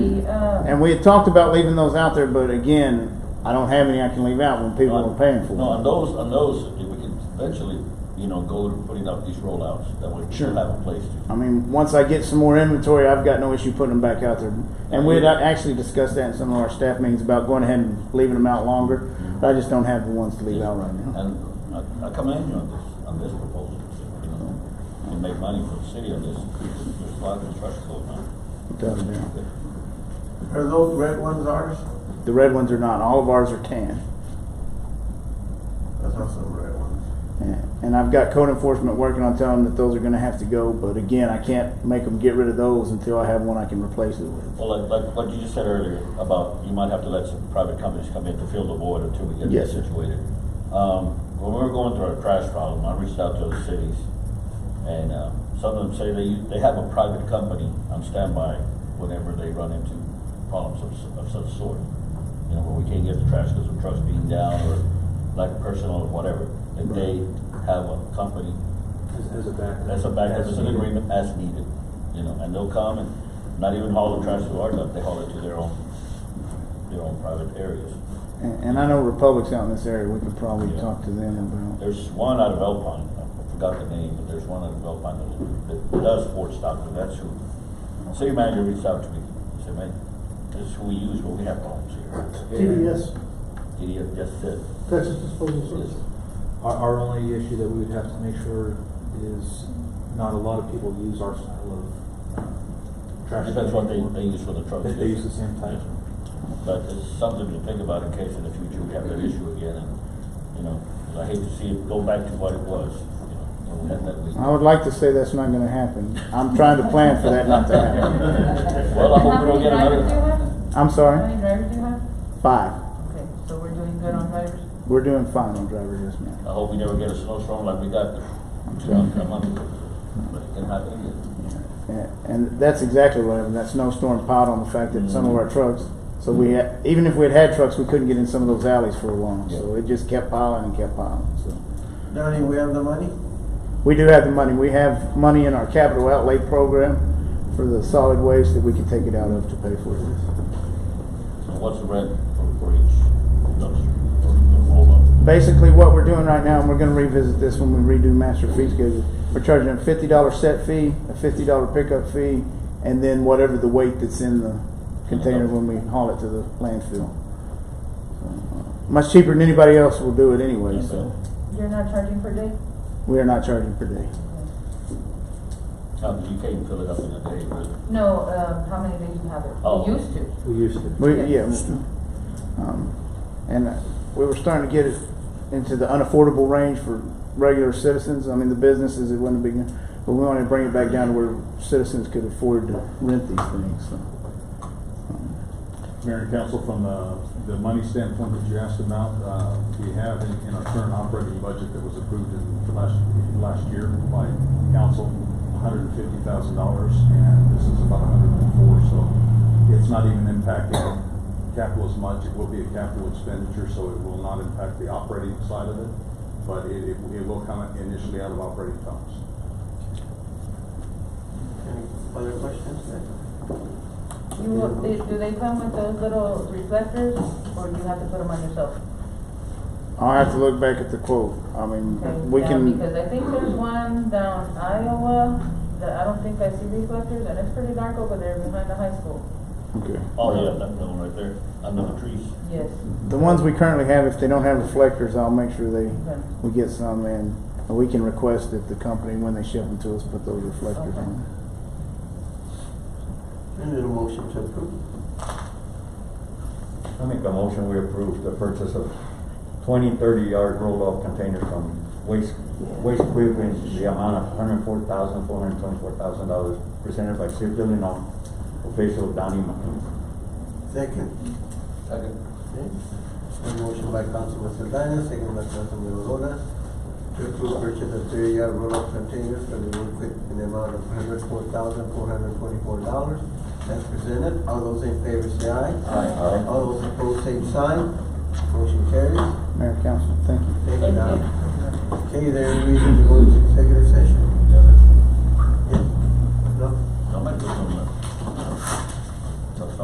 And we had talked about leaving those out there, but again, I don't have any I can leave out when people are paying for them. No, on those, on those, we can eventually, you know, go to putting up these rollouts, that way Sure. people have a place to. I mean, once I get some more inventory, I've got no issue putting them back out there. And we had actually discussed that in some of our staff meetings about going ahead and leaving them out longer. But I just don't have the ones to leave out right now. And I- I commend you on this, on this proposal, you know, you make money for the city on this, there's a lot of construction going on. Without a doubt. Are those red ones ours? uh, The red ones are not. All of ours are tan. That's also red ones. Yeah. And I've got code enforcement working on telling them that those are gonna have to go, but again, I can't make them get rid of those until I have one I can replace it with. Well, like, like what you just said earlier about you might have to let some private companies come in to fill the void until we get Yes, this sir. situated. Um, when we were going through our trash problem, I reached out to the cities and, uh, some of them say they, they have a private company on standby whenever they run into problems of, s- of such sort. You know, where we can't get the trash because of trucks being down or lack of personnel or whatever, that they have a company There's a backup. that's a backup, it's an agreement as needed, you know, and they'll come and not even haul the trash to our dump, they haul it to their own, their own private areas. And, and I know Republic's out in this area, we could probably Yeah. talk to them about. There's one out of Alpine, I forgot the name, but there's one out of Alpine that, that does forward stock, and that's who, city manager reached out to me, he said, man, this is who we use when we have problems here. TDS, Idiot, yes, it. Texas Disposal Yes. Service. Our, our only issue that we would have to make sure is not a lot of people use our style of uh, trash. Depends what they, anymore. they use for the trucks. They- they use the same type. But it's something to think about in case in the future we have that issue again, and, you know, 'cause I hate to see it go back to what it was, you know, when we had that leak. I would like to say that's not gonna happen. I'm trying to plan for that not to happen. Well, I hope we don't get How many another- drivers do you have? I'm How sorry, many drivers do you have? five. Okay, so we're doing good on drivers? We're doing fine on driver yes, ma'am. I hope we never get a snowstorm like we got two sure. months, a month ago, but it can happen again. And- And that's exactly what happened. That snowstorm piled on the fact that some of our trucks, so we had, even if we had had trucks, we couldn't get in some of those alleys for long. So it just kept piling and kept piling, so. Donnie, we have the money? We do have the money. We have money in our capital outlay program for the solid waste that we can take it out of to pay for this. So what's the rent for, for each dumpster, or the roll-up? Basically, what we're doing right now, and we're gonna revisit this when we redo master fee schedule, we're charging a fifty dollar set fee, a fifty dollar pickup fee, and then whatever the weight that's in the container when we haul it to the landfill. uh, Much cheaper than anybody else will do it anyway, so You're not charging per day? we are not charging per day. Tom, you can't fill it up in a day, but No, um, how many days you have it? Oh. We used to. We used to. We, yeah, Yeah. um, and uh, we were starting to get it into the unaffordable range for regular citizens. I mean, the businesses, it wouldn't be, good, but we wanted to bring it back down to where citizens could afford to rent these things, so. Um, Mayor and council, from the, the money standpoint that you asked about, uh, we have in, in our current operating budget that was approved in last, last year by council, hundred and fifty thousand dollars, and this is about hundred and four, so it's not even impacting capital as much. It will be a capital expenditure, so it will not impact the operating side of it, but it, it it will come initially out of operating funds. Any other questions? You, will- they- do they come with those little reflectors or you have to put them on yourself? I'll have to look back at the quote. I Okay, mean, we yeah, can, Because I think there's one down Iowa that I don't think I see reflectors and it's pretty dark over there behind the high school. okay. oh, yeah, that one right there, under the trees. Yes. The ones we currently have, if they don't have reflectors, I'll make sure they, Okay. we get some in. And we can request that the company, when they ship them to us, put those reflectors on. And then a motion to approve. I make a motion, we approve the purchase of 20 30-yard roll-off containers from Waste, Waste Quick in the amount of $104,424,000 presented by City of Illinois official Donnie McKean. Second. Second. Okay. A motion by Councilman Saldana, second by Councilman Rona, to approve purchase of three-yard roll-off containers for the road quick in the amount of hundred four thousand, four hundred twenty-four dollars. As presented, all those in favor say aye. Aye. All those opposed, same sign. Motion carries. Mayor, council, thank you. Thank you, Don. Okay, there is reason to go into executive session.